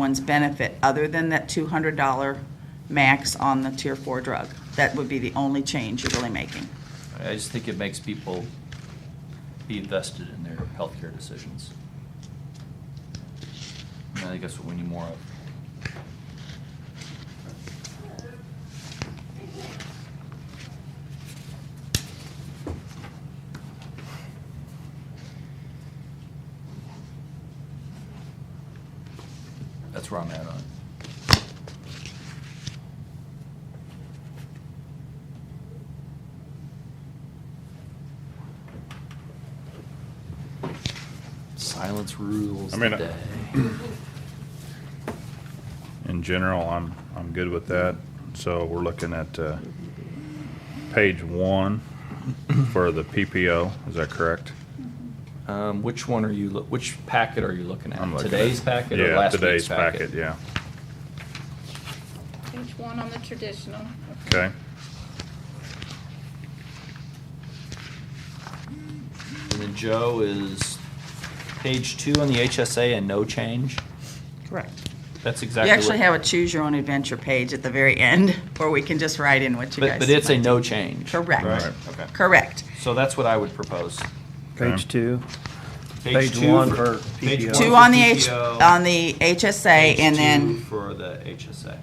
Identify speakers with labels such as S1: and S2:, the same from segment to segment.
S1: one's benefit, other than that $200 max on the tier four drug. That would be the only change you're really making.
S2: I just think it makes people be invested in their healthcare decisions. And I think that's what we need more of. That's where I'm at on it. Silence rules
S3: I
S2: the
S3: mean, I-
S2: day.
S3: In general, I'm, I'm good with that. So we're looking at, uh, page one for the PPO, is that correct?
S2: Um, which one are you, loo- which packet are you looking
S3: I'm
S2: at?
S3: looking at-
S2: Today's packet or
S3: Yeah,
S2: last
S3: today's
S2: week's packet?
S3: Yeah,
S4: Page one on the traditional.
S3: okay.
S2: And then Joe is page two on the HSA and no change.
S1: Correct.
S2: That's
S1: You
S2: exactly.
S1: actually
S2: what-
S1: have a choose your own adventure page at the very end, where we can just write in what you guys.
S2: But, but it's a
S1: like.
S2: no change.
S1: Correct.
S3: Right.
S2: Okay.
S1: Correct.
S2: So that's what I would propose.
S3: Okay.
S5: Page two. Page
S2: two
S5: one for
S2: page
S5: PPO.
S2: one
S1: Two
S2: for
S1: on the H,
S2: PPO,
S1: on the HSA,
S2: page
S1: and
S2: two
S1: then,
S2: For the HSA,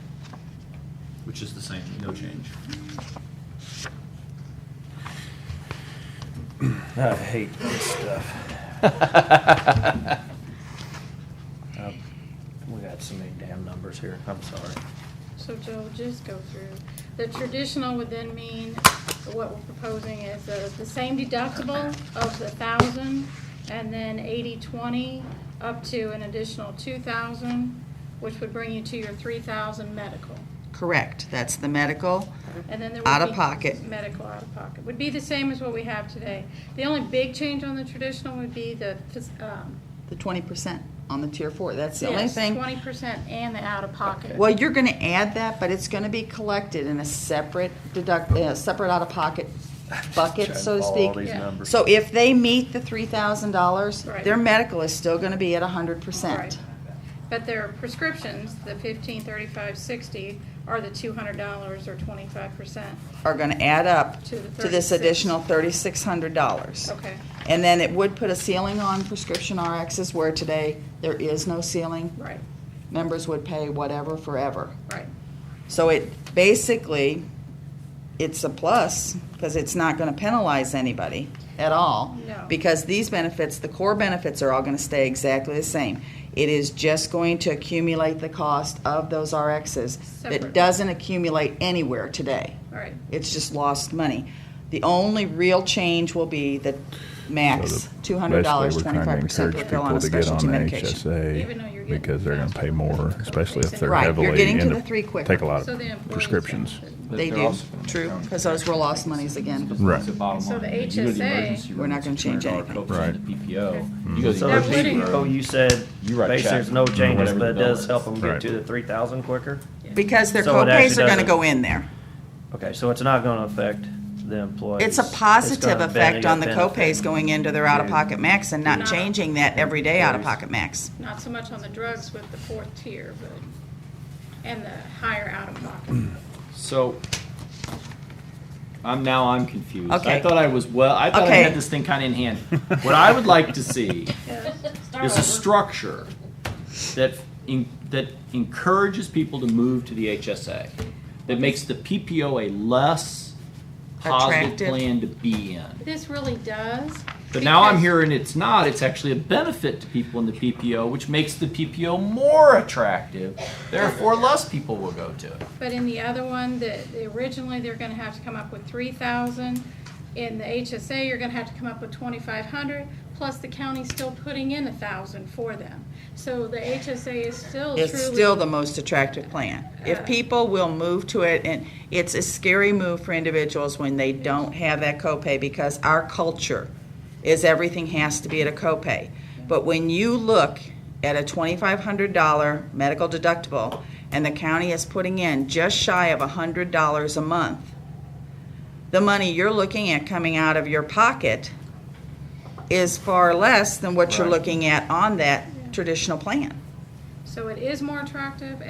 S2: which is the same, no change.
S5: I hate this stuff. Um, We got so many damn numbers here. I'm sorry.
S4: So Joe, just go through. The traditional would then mean, what we're proposing is uh, the same deductible of the thousand, and then eighty, twenty, up to an additional two thousand, which would bring you to your three thousand medical.
S1: correct, that's the medical.
S4: And then there would be.
S1: Out-of-pocket.
S4: Medical out of pocket. Would be the same as what we have today. The only big change on the traditional would be the, phys- um,
S1: The twenty percent on the tier four, that's the only
S4: yes,
S1: thing.
S4: twenty percent and the out of pocket.
S1: Well, you're gonna add that, but it's gonna be collected in a separate deduct, uh, separate out-of-pocket bucket,
S5: Trying to
S1: so to
S5: follow
S1: speak.
S5: All these
S4: Yeah.
S5: numbers.
S1: So if they meet the three thousand dollars,
S4: Right.
S1: their medical is still gonna be at a hundred
S4: Right.
S1: percent.
S4: But their prescriptions, the fifteen, thirty-five, sixty, are the two hundred dollars or twenty-five percent.
S1: Are gonna add up
S4: To the
S1: to this
S4: 36.
S1: additional thirty-six hundred dollars.
S4: Okay,
S1: And then it would put a ceiling on prescription RXs where today there is no ceiling.
S4: right,
S1: Members would pay whatever forever.
S4: right.
S1: So it basically, it's a plus because it's not going to penalize anybody at all.
S4: No.
S1: Because these benefits, the core benefits are all going to stay exactly the same. It is just going to accumulate the cost of those RXs that
S4: Separate.
S1: doesn't accumulate anywhere today.
S4: All right,
S1: It's just lost money. The only real change will be the max
S6: So the-
S1: two hundred dollars,
S6: basically, we're
S1: twenty-five
S6: trying to
S1: percent
S6: encourage
S1: per fill on a
S6: people to get
S1: specialty
S6: on the
S1: medication.
S4: Even though you're
S6: HSA
S4: getting
S6: because they're gonna pay
S4: faster.
S6: more, especially if they're
S1: Right, you're
S6: heavily.
S1: getting to
S6: into-
S1: the three quicker.
S6: Take a lot
S4: so the
S6: of
S4: employees.
S6: prescriptions.
S2: But
S1: They
S2: they're
S1: do,
S2: also gonna make
S1: true,
S2: their own
S1: because those were lost monies again.
S6: Right.
S2: It's the bottom
S4: So the
S2: line. You go to the
S4: HSA
S2: emergency
S1: We're not
S2: room, it's
S1: gonna change
S2: $200
S1: anything.
S2: copays in
S6: Right.
S2: the PPO. You go to the
S4: That
S5: So the
S4: would-
S2: emergency
S5: people
S2: room.
S5: Oh, you said,
S2: You write a
S5: basically,
S2: check,
S5: there's no changes,
S2: whatever
S5: but it
S2: the bill
S5: does
S2: is.
S5: help them get
S6: Right.
S5: to the three thousand quicker?
S1: Because their
S5: So it
S1: copays
S5: actually
S1: are gonna
S5: doesn't-
S1: go in there.
S5: Okay, so it's not gonna affect the employees.
S1: It's a
S5: gonna
S1: positive
S5: bene-
S1: effect on the
S5: benefit.
S1: copays going into their out-of-pocket max and not
S4: Not-
S1: changing that everyday
S5: Employees.
S1: out-of-pocket max.
S4: not so much on the drugs with the fourth tier, but, and the higher out-of-pocket.
S2: So, I'm now I'm confused.
S1: Okay.
S2: I thought I was well. I thought I
S1: Okay.
S2: had this thing kind of in hand. what I would like to see is a structure that in, that encourages people to move to the HSA, that makes the PPO a less positive
S1: Attractive.
S2: plan to be in.
S4: This really does.
S2: But now I'm
S4: because-
S2: hearing it's not. It's actually a benefit to people in the PPO, which makes the PPO more attractive. Therefore, less people will go to it.
S4: But in the other one, the, the- originally, they're gonna have to come up with three thousand. In the HSA, you're gonna have to come up with twenty-five hundred, plus the county's still putting in a thousand for them. So the HSA is still truly.
S1: It's still the most attractive plan. If people will move to it, and it's a scary move for individuals when they don't have that copay because our culture is everything has to be at a copay. But when you look at a $2,500 medical deductible and the county is putting in just shy of $100 a month, the money you're looking at coming out of your pocket is far less than what you're
S2: Right.
S1: looking at on that traditional plan.
S4: So it is more attractive